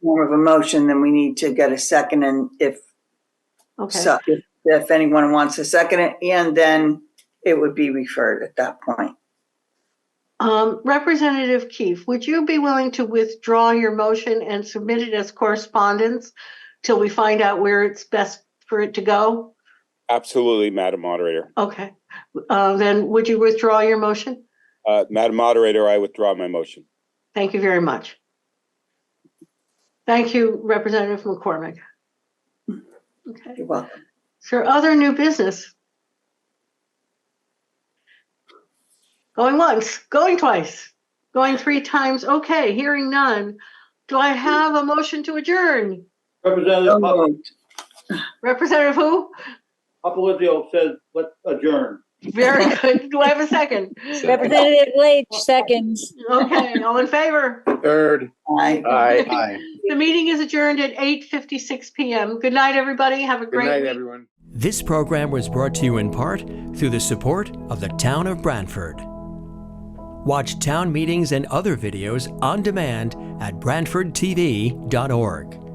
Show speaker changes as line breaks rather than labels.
form of a motion, then we need to get a second and if,
Okay,
so, if- if anyone wants to second it, and then it would be referred at that point.
um, Representative Keefe, would you be willing to withdraw your motion and submit it as correspondence till we find out where it's best for it to go?
Absolutely, Madam Moderator.
Okay, uh, then would you withdraw your motion?
Uh, Madam Moderator, I withdraw my motion.
Thank you very much. Thank you, Representative McCormick. Okay.
You're welcome.
Is there other new business? Going once, going twice, going three times, okay, hearing none. Do I have a motion to adjourn?
So
Representative Pap-
moved.
Representative who?
Papalizio says, let's adjourn.
Very good. Do I have a second?
Representative Leach, seconds.
Okay, all in favor?
Third.
Aye.
Aye. Aye.
The meeting is adjourned at 8:56 PM. Good night, everybody. Have a
Good
great
night,
week.
everyone.
This program was brought to you in part through the support of the Town of Brantford. Watch town meetings and other videos on demand at BrantfordTV.org.